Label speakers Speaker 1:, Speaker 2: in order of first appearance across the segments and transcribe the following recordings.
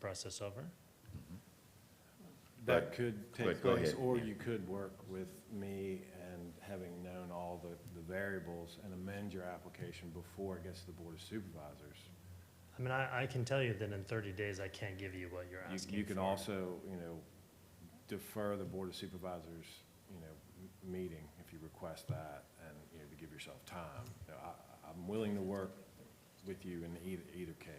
Speaker 1: process over.
Speaker 2: That could take
Speaker 3: but go
Speaker 2: place,
Speaker 3: ahead,
Speaker 2: or
Speaker 3: yeah.
Speaker 2: you could work with me and having known all the, the variables and amend your application before it gets to the Board of Supervisors.
Speaker 1: I mean, I, I can tell you that in thirty days, I can't give you what you're
Speaker 2: You-
Speaker 1: asking
Speaker 2: You could
Speaker 1: for.
Speaker 2: also, you know, defer the Board of Supervisors, you know, m- meeting if you request that and, you know, to give yourself time. You know, I, I'm willing to work with you in either, either case.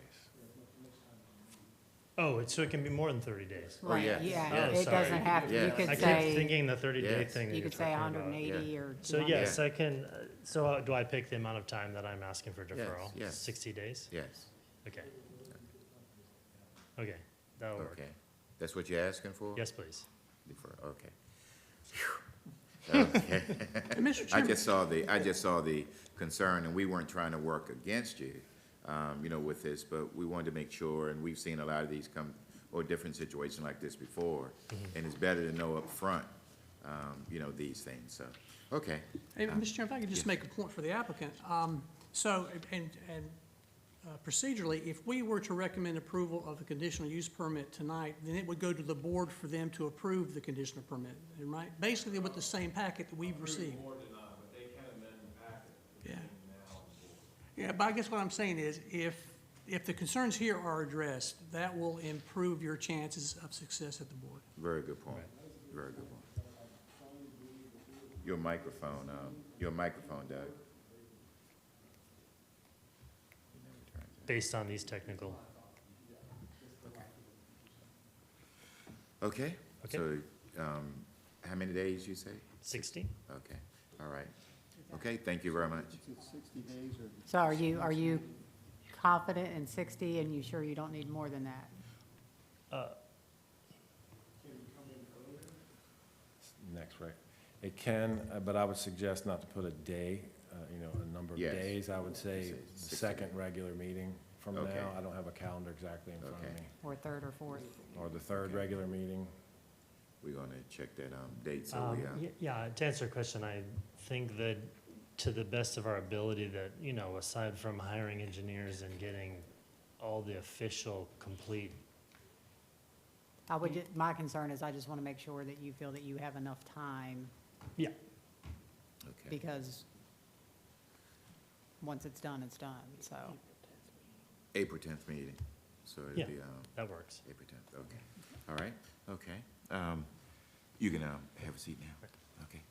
Speaker 1: Oh, it's- so it can be more than thirty days?
Speaker 3: Oh,
Speaker 4: Right,
Speaker 3: yeah,
Speaker 4: yeah,
Speaker 1: yeah,
Speaker 4: it
Speaker 1: sorry.
Speaker 4: doesn't have, to.
Speaker 3: Yeah.
Speaker 4: you
Speaker 1: I
Speaker 4: could
Speaker 1: kept
Speaker 4: say,
Speaker 1: thinking the thirty-day
Speaker 3: Yes.
Speaker 1: thing that
Speaker 4: you
Speaker 1: you're
Speaker 4: could say
Speaker 1: talking
Speaker 4: hundred and
Speaker 1: about.
Speaker 4: eighty or.
Speaker 1: So
Speaker 4: 200.
Speaker 1: yes, I can, uh, so uh, do I pick the amount of time that I'm asking for deferral?
Speaker 3: yes.
Speaker 1: Sixty days?
Speaker 3: Yes,
Speaker 1: Okay. Okay, that'll work.
Speaker 3: okay. That's what you're asking for?
Speaker 1: Yes, please.
Speaker 3: Defer- Okay. Phew. Okay.
Speaker 5: Mr.
Speaker 3: I
Speaker 5: Chairman,
Speaker 3: just saw the, I just saw the concern, and we weren't trying to work against you, um, you know, with this, but we wanted to make sure, and we've seen a lot of these come, or different situations like this before, and it's better to know upfront, um, you know, these things, so, okay.
Speaker 5: hey, Mr. Chairman, if I could just make a point for the applicant. Um, So, and, and uh, procedurally, if we were to recommend approval of the conditional use permit tonight, then it would go to the board for them to approve the conditional permit, right? Basically with the same packet that we've received. Yeah. Yeah, but I guess what I'm saying is, if, if the concerns here are addressed, that will improve your chances of success at the board.
Speaker 3: Very good point, very good point. Your microphone, um, your microphone, Doug.
Speaker 1: Based on these technical,
Speaker 3: Okay?
Speaker 1: Okay.
Speaker 3: So, um, how many days you say?
Speaker 1: sixty?
Speaker 3: Okay, all right. Okay, thank you very much.
Speaker 4: So are you, are you confident in sixty and you sure you don't need more than that?
Speaker 2: Next rec. It can, uh, but I would suggest not to put a day, uh, you know, a number of
Speaker 3: Yes.
Speaker 2: days. I would say the
Speaker 3: Sixty.
Speaker 2: second regular meeting from
Speaker 3: Okay.
Speaker 2: now. I don't have a calendar exactly in front of
Speaker 3: Okay.
Speaker 2: me.
Speaker 4: Or third or fourth?
Speaker 2: Or the third
Speaker 3: Okay.
Speaker 2: regular meeting.
Speaker 3: We're gonna check that, um, date, so
Speaker 1: Um,
Speaker 3: we, uh,
Speaker 1: y- Yeah, to answer your question, I think that to the best of our ability that, you know, aside from hiring engineers and getting all the official, complete,
Speaker 4: I would, ju- my concern is I just want to make sure that you feel that you have enough time
Speaker 1: yeah,
Speaker 3: okay.
Speaker 4: because once it's done, it's done, so.
Speaker 3: April tenth meeting, so
Speaker 1: Yeah.
Speaker 3: it'll be, um,
Speaker 1: that works.
Speaker 3: April tenth, okay. All right, okay. Um, you can, um, have a seat now, okay.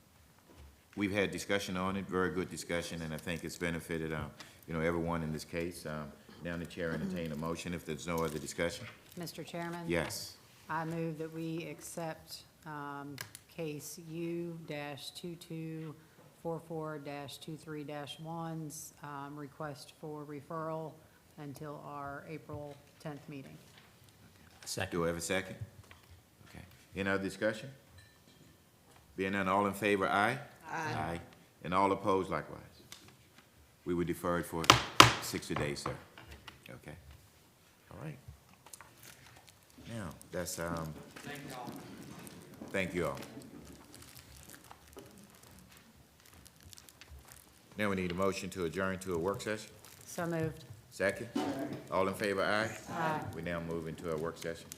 Speaker 3: We've had discussion on it, very good discussion, and I think it's benefited, um, you know, everyone in this case. Um, now the chair entertain a motion if there's no other discussion.
Speaker 4: Mr. Chairman?
Speaker 3: Yes,
Speaker 4: I move that we accept um, case U-2244-23-1's um, request for referral until our April 10th meeting.
Speaker 3: do I have a second? Okay, any other discussion? Being none, all in favor, aye? Aye. And all opposed likewise? We would defer it for sixty days, sir. Okay, all right. Now, that's, um. Thank you all. Thank you all. Now we need a motion to adjourn to a work session.
Speaker 4: So moved.
Speaker 3: Second? All in favor, aye?
Speaker 4: Aye.
Speaker 3: We now move into a work session.